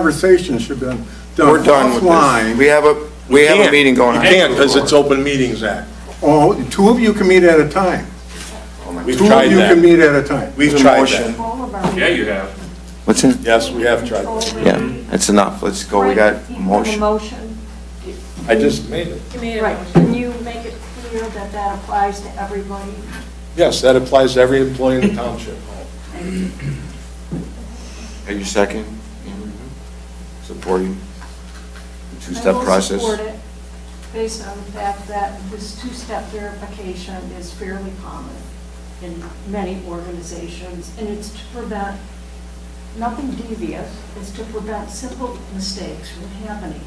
Conversation should have been We're done done with this. offline. We have a, we have a meeting going on. You can't, because it's Open Meetings Act. Oh, two of you can meet at a time. Oh We've Two of tried you can that. meet at a time. We've There's a tried motion. that. All of our Yeah, you have. What's in? Yes, we have tried that. Yeah, that's enough. Let's go. We got a The motion. motion, I just made it. right, can you make it clear that that applies to everybody? Yes, that applies to every employee in the township. Are you second? Supporting the I two-step will process? support it Based on the fact that this two-step verification is fairly common in many organizations, and it's to prevent, nothing devious, it's to prevent simple mistakes from happening.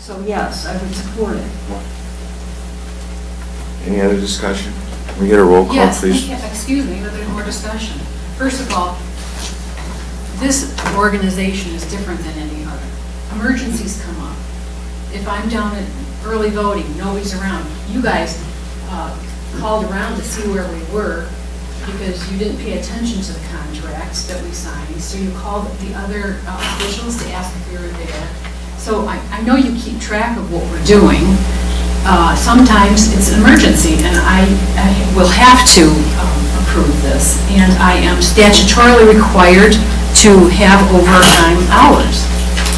So yes, I would support it. Any other discussion? Can we get a roll call, Yes, please? thank you. excuse me, but there's more discussion. First of all, this organization is different than any other. Emergencies come up. If I'm down at early voting, nobody's around, you guys uh, called around to see where we were because you didn't pay attention to the contracts that we signed, so you called the other uh, officials to ask if we were there. So I, I know you keep track of what we're doing. Uh, Sometimes it's an emergency, and I, I will have to um, approve this. And I am statutorily required to have overtime hours.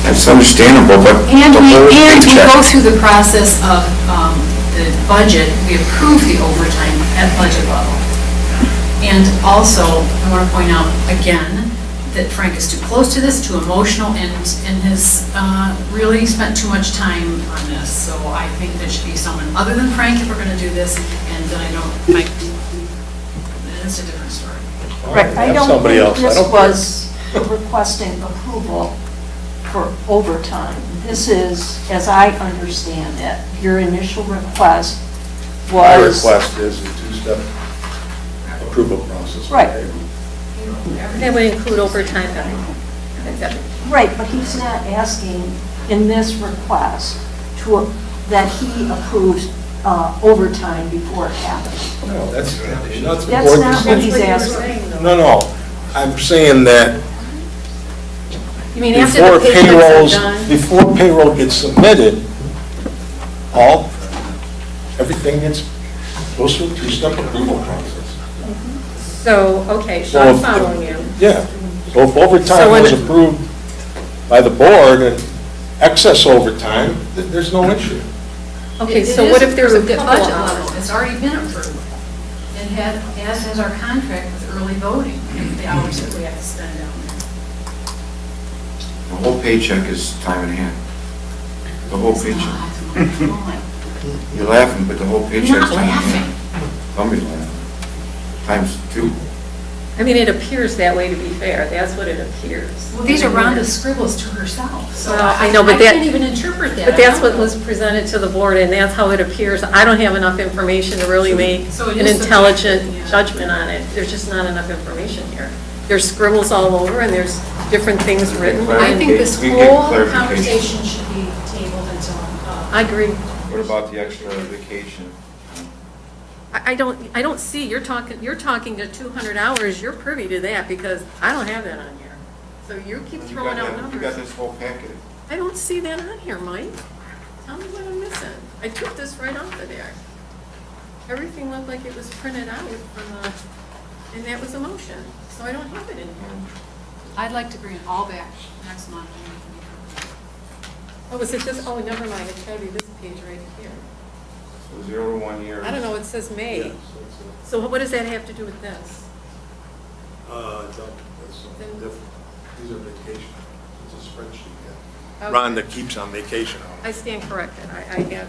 That's understandable, but And the we, whole and we go paycheck. through the process of um, the budget, we approve the overtime at budget level. And also, I want to point out again, that Frank is too close to this, too emotional, and, and has uh, really spent too much time on this. So I think there should be someone other than Frank if we're going to do this, and then I don't, like, that's a different story. Right, I Have don't somebody think else, I this don't care. was requesting approval for overtime. This is, as I understand it, your initial request My was. request is a two-step approval process. Right. That would include overtime, except Right, but he's not asking in this request to, that he approves uh, overtime before it happens. No, that's, that's the That's board's not what he's decision. asking. No, no, I'm saying that You mean after before the payrolls, payments are done? before payroll gets submitted, all, everything gets, goes through a two-step approval process. So, okay, so So I'm if- following you. Yeah, so if overtime So when- was approved by the board and excess overtime, th- there's no issue. Okay, It- it so is what if there's a approved at couple budget level. hours? It's already been approved. It had, as has our contract with early voting, the hours that we have to spend down there. The whole paycheck is time and a half. The whole It's paycheck. not. Oh, my- You're laughing, but the whole paycheck's I'm time not and a laughing. half. Somebody's laughing. Times two. I mean, it appears that way, to be fair, that's what it appears. Well, these are Rhonda's scribbles to herself, so Well, I I I know, but that- can't even interpret that. But that's what was presented to the board, and that's how it appears. I don't have enough information to really make So it an is intelligent subjective, yeah. judgment on it. There's just not enough information here. There's scribbles all over, and there's different things written. I think this We get whole clarification. conversation should be tabled until, uh, I agree. What about the extra vacation? I I don't, I don't see, you're talking, you're talking to 200 hours, you're privy to that, because I don't have that on here. So you keep You got throwing out that- you got numbers. this whole packet. I don't see that on here, Mike. Tell me what I'm missing. I took this right off of there. Everything looked like it was printed out from the, and that was a motion, so I don't have it in here. I'd like to bring it all back next month. and we can- Oh, is it this, oh, never mind, it's gotta be this page right here. So zero to one year. I don't know, it says May. So what does that have to do with this? uh, These are vacation, it's a spreadsheet, Okay. Rhonda keeps on vacation. I stand corrected, I, I have,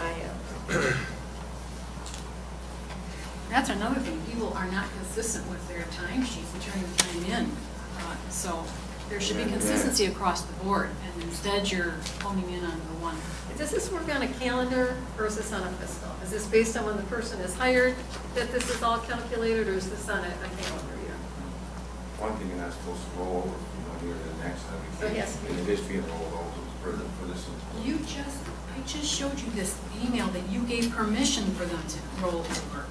I have. That's another thing, people are not consistent with their time sheets and turning the time in. Uh, So there should be consistency across the board, and instead you're honing in on the one. Does this work on a calendar or is this on a fiscal? Is this based on when the person is hired, that this is all calculated, or is this on a a calendar year? One thing you're not supposed to roll over from one year to the next. I mean, So yes. and It is being rolled over for the, for this. one. You just, I just showed you this email that you gave permission for them to roll over.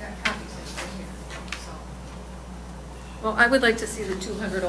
That copy's it right here, so. Well, I would like to see the two hundred